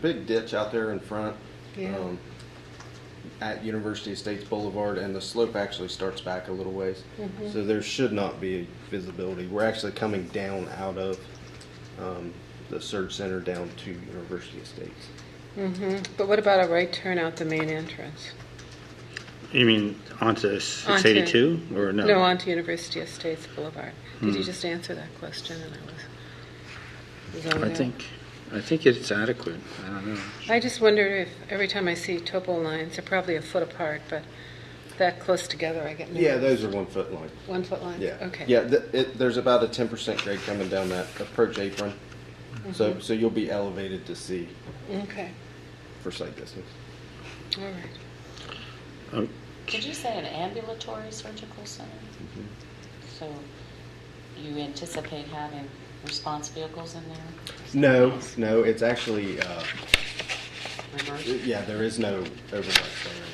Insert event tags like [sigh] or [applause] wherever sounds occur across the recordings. big ditch out there in front. Yeah. um, At University Estates Boulevard, and the slope actually starts back a little ways. Mm-hmm. So there should not be visibility. We're actually coming down out of um, the surge center down to University Estates. Mhm. But what about a right turn out the main entrance? You mean onto six eighty-two or no? Hmm. No, onto University Estates Boulevard. Did you just answer that question and I was, was over I there? think, I think it's adequate. I don't know. I just wonder if, every time I see topo lines, they're probably a foot apart, but that close together, I get Yeah, nervous. those are one foot line. One foot lines? Yeah. Okay. Yeah, th- it, there's about a ten percent grade coming down that approach apron. So, Mm-hmm. so you'll be elevated to see Okay, for sight distance. all right. [laughs] Oh, Did you say an ambulatory surgical center? Mm-hmm. So you anticipate having response vehicles in there? No, no, it's actually, uh, Reverse? yeah, there is no overlap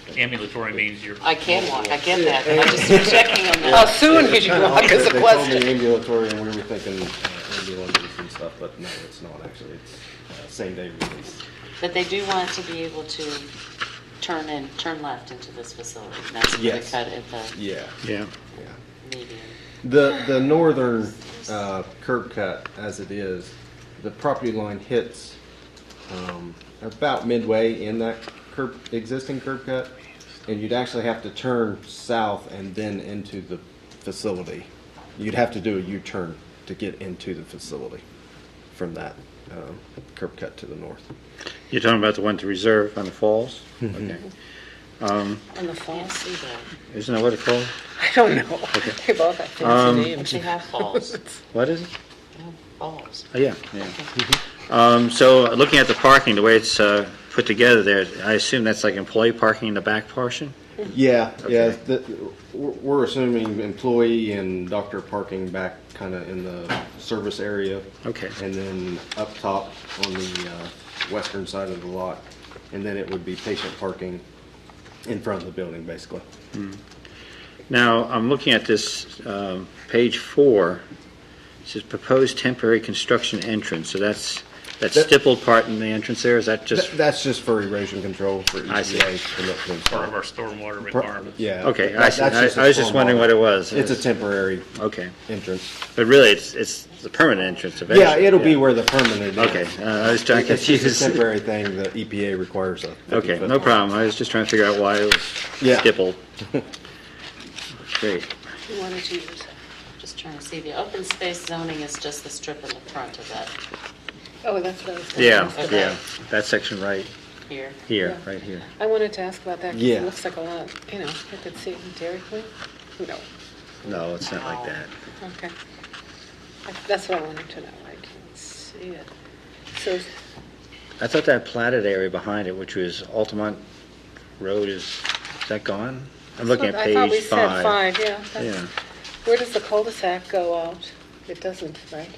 there. Ambulatory means you're. I can walk, I get that, but I just was checking on that. soon could you walk They told me ambulatory and we were thinking uh, ambulances and stuff, but no, it's not actually. It's uh, same day release. But they do want to be able to turn in, turn left into this facility. and That's where they Yes. cut at the Yeah, Yeah, yeah. median. The, the northern uh, curb cut as it is, the property line hits um, about midway in that curb, existing curb cut. And you'd actually have to turn south and then into the facility. You'd have to do a U-turn to get into the facility from that um, curb cut to the north. you're talking about the one to reserve on the falls? Okay. On the Can't falls? see that, Isn't that what it's called? I don't [laughs] know. They both have fancy Um, but names. [laughs] they have falls, What is it? No, falls. Oh, yeah, yeah. Um, so looking at the parking, the way it's, uh, put together there, I assume that's like employee parking in the back portion? Yeah, yeah. Okay. the- We're we're assuming employee and doctor parking back kind of in the service area. Okay. And then up top on the uh, western side of the lot. And then it would be patient parking in front of the building, basically. Now, I'm looking at this, um, page four, it says proposed temporary construction entrance, so that's, that That- stippled part in the entrance there, is that just? Th- That's just for erosion control for I see. EPA. to look to Part of our install. stormwater Par- requirements. Yeah. Okay, that- I see. that's I- a I was just stormwater. wondering what it was. It's a temporary Okay, entrance. but really, it's, it's the permanent entrance eventually. Yeah, it'll be where the permanent is. Okay, uh, I was trying to It's just confuse. a temporary thing the EPA requires of. [laughs] Okay, no problem, I was just trying to figure out why it was Yeah. [laughs] stippled. Great, You wanted to use it. Just trying to see, the open space zoning is just the strip in the front of that Oh, that's what I was going to yeah, ask. yeah, that section right here. here, Yeah. right here. I wanted to ask about that 'cause Yeah. it looks like a lot, you know, I could see it in Dairy Queen. No, No, it's not like that. okay. That- That's what I wanted to know. I can't see it. So, I thought that platted area behind it, which was Altamont Road, is, is that gone? I'm looking at I thought we page said five. five, yeah. that's- Yeah, Where does the cul-de-sac go out? It doesn't, right?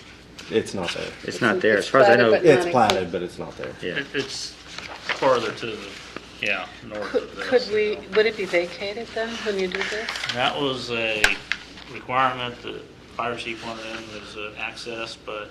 It's not there. it's not there, It's as far as I platted, know, but yeah. It's platted, but it's not there. It- It's farther to the, yeah, north Could of this. could we, would it be vacated then when you do this? That was a requirement that fire chief wanted in, was uh, access, but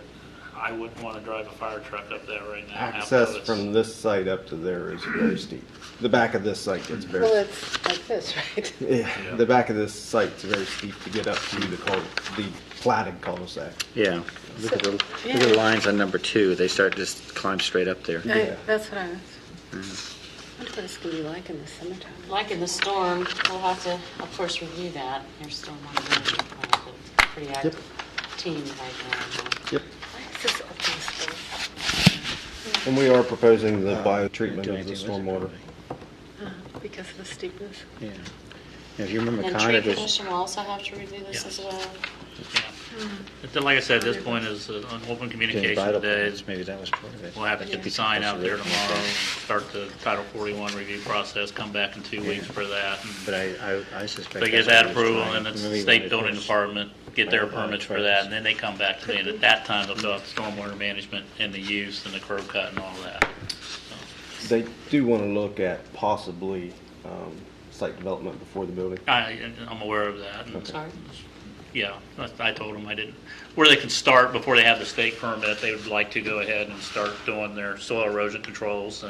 I wouldn't want to drive a fire truck up that right now. Access After it's- from this site up to there is very steep. The back of this site gets Well, very, it's like this, [laughs] right? yeah, the back of this site's very steep to get up to the cul, the platted cul-de-sac. Yeah, look at the, look at Yeah. the lines on number two, they start, just climb straight up there. I- Yeah. That's what I was, wonder what it's going to be like in the summertime. Like in the storm, we'll have to, of course, review that. There's still one management plan, but it's a pretty active team right now. Yep. Why is this open space? And we are proposing the Uh, Don't bio-treatment do of the anything with stormwater. it, Uh, Because of the steepness. probably. Yeah. Yeah, if you remember And Con, tree it was- commission will also have to review this as Yes. well. Yeah. But then, like I said, at this point is uh, an open communication Vital today. Plans, Maybe that was part of it. We'll have to get the sign out there tomorrow, start the Title 41 review process, come back in two weeks for that. and- But I, I, I suspect. They get that's that what he was approval, trying- and it's maybe the he state wanted building those- department, get their all the permits for permits. that, and then they come back to me, and at that time, they'll fill out the stormwater management and the use and the curb cut and all that. They do want to look at possibly um, site development before the building. I, I'm aware of that, and Sorry? yeah, I- I told them I didn't, where they can start before they have the state permit, they would like to go ahead and start doing their soil erosion controls